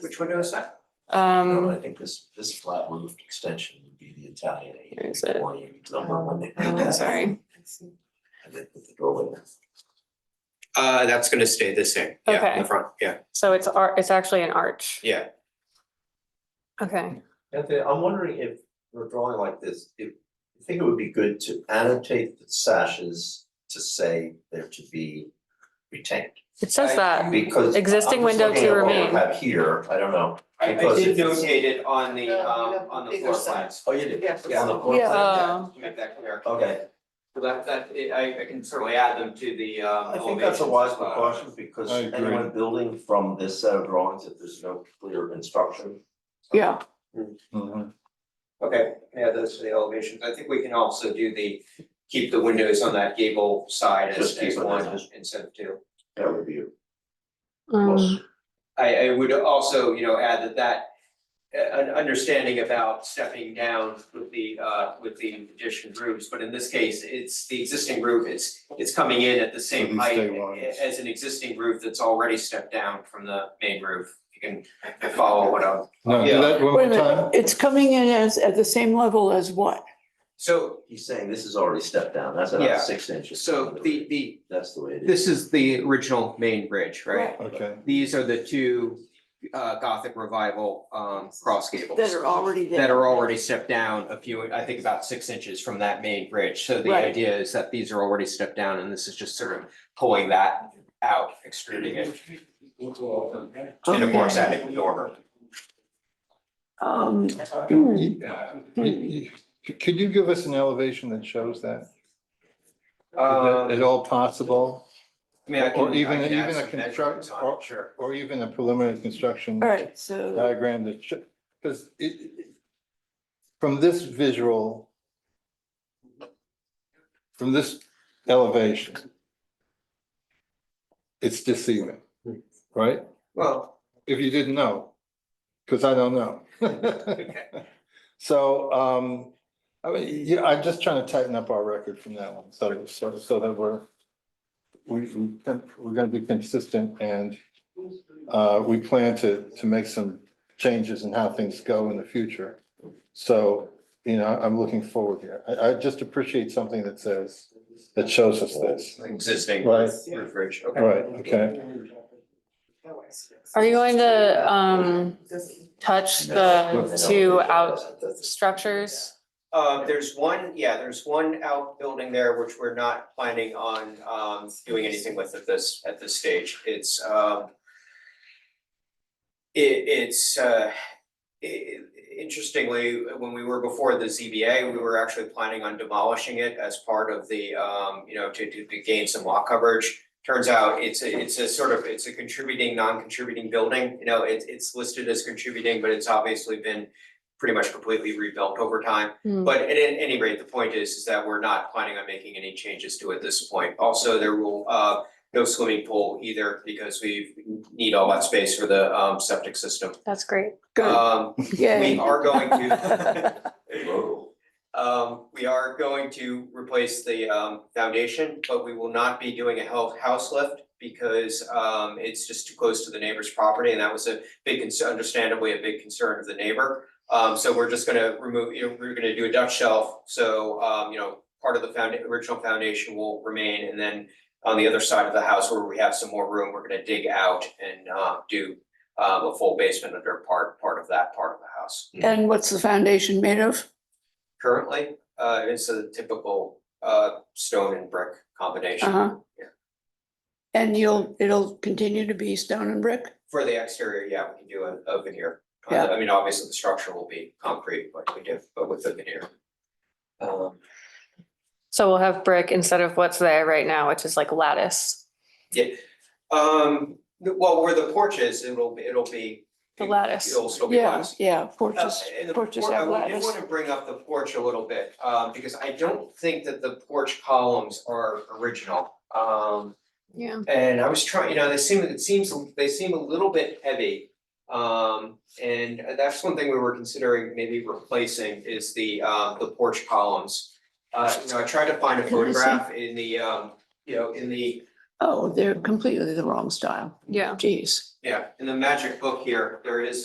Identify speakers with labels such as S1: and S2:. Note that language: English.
S1: Which window is that?
S2: Um.
S3: No, I think this, this flat roofed extension would be the Italian
S2: Where is it?
S3: Italian number when they did
S2: Oh,
S3: that,
S2: sorry.
S3: and they put the doorway in.
S4: Uh, that's gonna stay the same, yeah, in
S2: Okay.
S4: the front, yeah,
S2: So it's ar- it's actually an arch.
S4: yeah.
S2: Okay.
S3: Anthony, I'm wondering if we're drawing like this, if, I think it would be good to annotate the sashes to say they're to be retained.
S2: It says
S1: I-
S2: that.
S3: Because I'm just
S2: Existing window
S3: looking
S2: to
S3: at what we
S2: remain.
S3: Have here, I don't know.
S1: I I
S3: Because
S1: did
S3: it's-
S1: notate it on the
S5: No, we
S1: um
S5: Uh, have
S1: on the
S5: bigger
S1: floor
S5: sign.
S1: plans.
S3: Oh, you did?
S5: Yes.
S3: On the floor
S2: Yeah.
S3: plan?
S2: Oh.
S1: To make that clear.
S3: Okay,
S1: So that that I I can certainly add them to the um
S3: I think that's a
S1: elevations
S3: wise
S1: as well.
S3: precaution because
S6: I agree.
S3: anyone building from this set of drawings, if there's no clear instruction,
S2: Yeah.
S6: Mhm.
S1: Okay, yeah, those are the elevations. I think we can also do the, keep the windows on that gable side as
S3: Just keep
S1: as
S3: it
S1: one
S3: as-
S1: instead of two.
S3: that would be a plus.
S2: Um,
S1: I I would also, you know, add that that uh, an understanding about stepping down with the uh with the addition roofs, but in this case, it's the existing roof, it's it's coming in at the same
S6: these
S1: height
S6: stay lines.
S1: as an existing roof that's already stepped down from the main roof. You can follow what I'm
S6: No, do that one
S5: Wait a
S6: more
S5: minute,
S6: time.
S5: it's coming in as, at the same level as what?
S1: So
S3: He's saying this is already stepped down, that's
S1: Yeah.
S3: about six inches.
S1: so the the
S3: That's the way it is.
S1: this is the original main bridge, right?
S6: Okay,
S1: These are the two uh Gothic revival um cross gables.
S5: That are already there?
S1: that are already stepped down a few, I think about six inches from that main bridge. So the
S5: Right.
S1: idea is that these are already stepped down and this is just sort of pulling that out, extruding it
S6: Oh,
S1: in a more
S5: Okay.
S1: static order.
S5: Um,
S6: You- you- you- Could you give us an elevation that shows that? Is that
S1: Um,
S6: At all possible,
S1: I mean, I can,
S6: or even-
S1: I can add
S6: even a
S1: some measurements
S6: construct-
S1: on it, sure.
S6: or even a preliminary construction
S5: all right, so,
S1: Uh,
S6: diagram that should, because it, it- from this visual, from this elevation, it's deceiving, right?
S1: Well,
S6: If you didn't know, because I don't know. So, um, I mean, yeah, I'm just trying to tighten up our record from that one, so, so, so that we're, we, we can- we're gonna be consistent and, uh, we plan to, to make some changes in how things go in the future. So, you know, I'm looking forward here. I, I just appreciate something that says, that shows us this.
S1: existing
S6: Right.
S1: roof ridge, okay.
S6: Right, okay,
S2: are you going to um touch the uh, two out structures?
S1: Uh, there's one, yeah, there's one outbuilding there which we're not planning on um doing anything with at this, at this stage. It's um. It it's uh, i- interestingly, when we were before the ZBA, we were actually planning on demolishing it as part of the um, you know, to to to gain some lot coverage. Turns out it's a, it's a sort of, it's a contributing, non-contributing building, you know, it's it's listed as contributing, but it's obviously been pretty much completely rebuilt over time.
S2: Hmm.
S1: But at any any rate, the point is, is that we're not planning on making any changes to it this point. Also, there will, uh, no swimming pool either because we need all that space for the, um, septic system.
S2: That's great.
S5: good,
S1: Um, we
S5: yay.
S1: are going to, um, we are going to replace the, um, foundation, but we will not be doing a health house lift because, um, it's just too close to the neighbor's property and that was a big, concern- understandably, a big concern of the neighbor. Um, so we're just gonna remove, you know, we're gonna do a Dutch shelf, so, um, you know, part of the found, original foundation will remain, and then on the other side of the house where we have some more room, we're gonna dig out and, um, do, um, a full basement under part, part of that part of the house.
S5: And what's the foundation made of?
S1: Currently, uh, it's a typical, uh, stone and brick combination
S5: Uh-huh.
S1: Yeah.
S5: And you'll, it'll continue to be stone and brick?
S1: for the exterior, yeah, we can do a, a veneer. Uh,
S5: Yeah.
S1: I mean, obviously, the structure will be concrete, like we did, but with the veneer. Um,
S2: So we'll have brick instead of what's there right now, which is like lattice.
S1: Um, well, where the porch is, it'll, be it'll be.
S2: The lattice.
S1: It'll still be
S5: Yeah,
S1: lattice.
S5: yeah,
S1: Uh,
S5: porches,
S1: and the
S5: porches
S1: por-
S5: have
S1: I did
S5: lattice.
S1: want to bring up the porch a little bit, um, because I don't think that the porch columns are original. Um,
S2: Yeah.
S1: and I was trying, you know, they seem, it seems, they seem a little bit heavy. Um, and that's one thing we were considering maybe replacing is the, uh, the porch columns. Uh, you know, I tried to find a
S5: Can I see?
S1: photograph in the, um, you know, in the
S5: Oh, they're completely the wrong style,
S2: Yeah.
S5: geez.
S1: Yeah, in the magic book here, there is